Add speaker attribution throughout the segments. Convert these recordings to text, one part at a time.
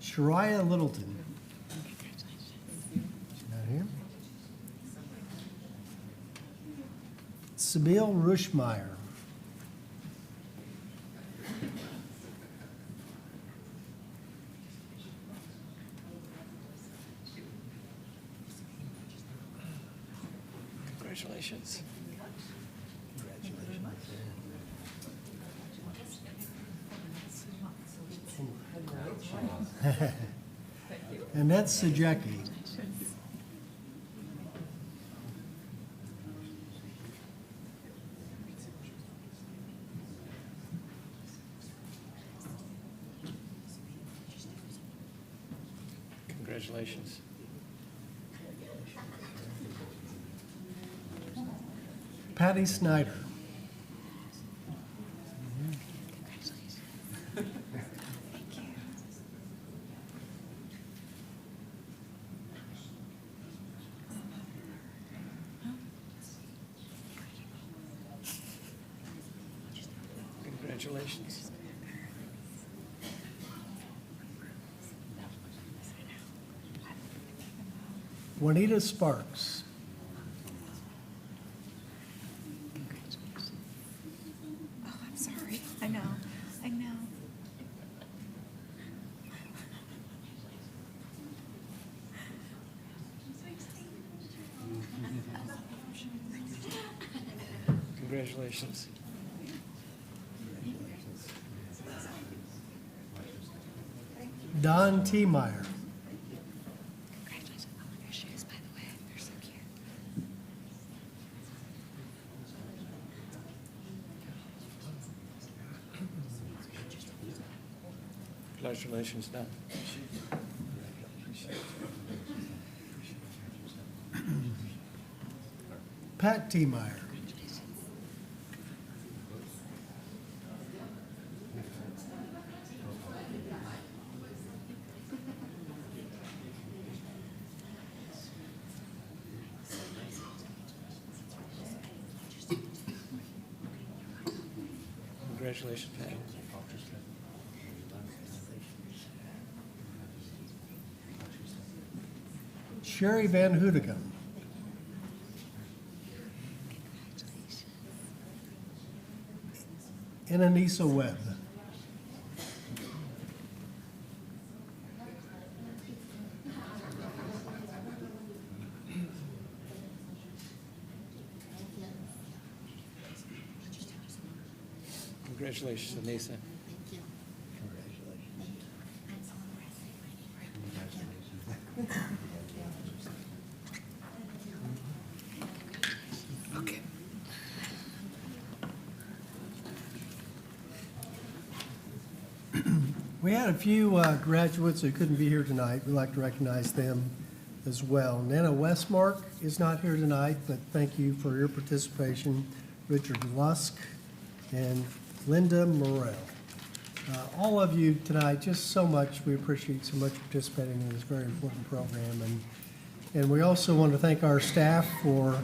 Speaker 1: Shariah Littleton. She's not here. Sabil Rushmeyer.
Speaker 2: Congratulations.
Speaker 1: Congratulations. Annette Sejeki.
Speaker 2: Congratulations.
Speaker 1: Patty Snyder.
Speaker 2: Congratulations.
Speaker 1: Juanita Sparks.
Speaker 3: Oh, I'm sorry. I know. I know.
Speaker 2: Congratulations.
Speaker 1: Don T. Meyer.
Speaker 3: Congratulations. I love your shoes, by the way. They're so cute.
Speaker 2: Congratulations, Don.
Speaker 1: Pat T. Meyer.
Speaker 2: Congratulations, Pat.
Speaker 1: Sherry Van Hoodigem. Ananisa Webb.
Speaker 2: Congratulations, Anissa.
Speaker 1: We had a few uh, graduates who couldn't be here tonight. We'd like to recognize them as well. Nana Westmark is not here tonight, but thank you for your participation. Richard Lusk and Linda Morrell. Uh, All of you tonight, just so much, we appreciate so much participating in this very important program. And and we also want to thank our staff for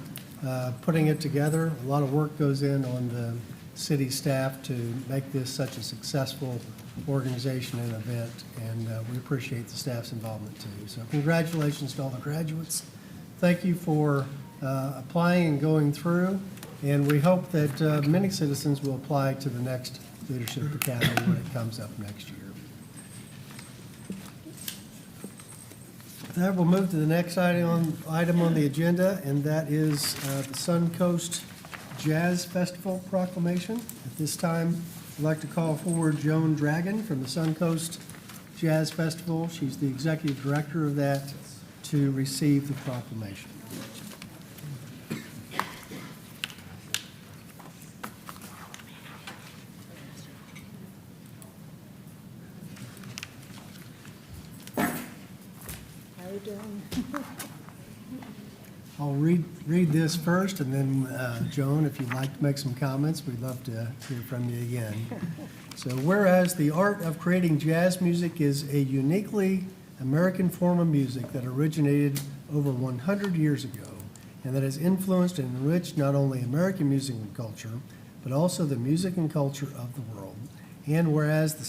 Speaker 1: uh, putting it together. A lot of work goes in on the city staff to make this such a successful organization and event, and uh, we appreciate the staff's involvement too. So congratulations to all the graduates. Thank you for uh, applying and going through, and we hope that uh, many citizens will apply to the next Leadership Academy when it comes up next year. That will move to the next item on, item on the agenda, and that is uh, the Suncoast Jazz Festival proclamation. At this time, I'd like to call forward Joan Dragon from the Suncoast Jazz Festival. She's the executive director of that, to receive the proclamation.
Speaker 4: How you doing?
Speaker 1: I'll read, read this first, and then, uh, Joan, if you'd like to make some comments, we'd love to hear from you again. So whereas the art of creating jazz music is a uniquely American form of music that originated over 100 years ago and that has influenced and enriched not only American music and culture, but also the music and culture of the world. And whereas the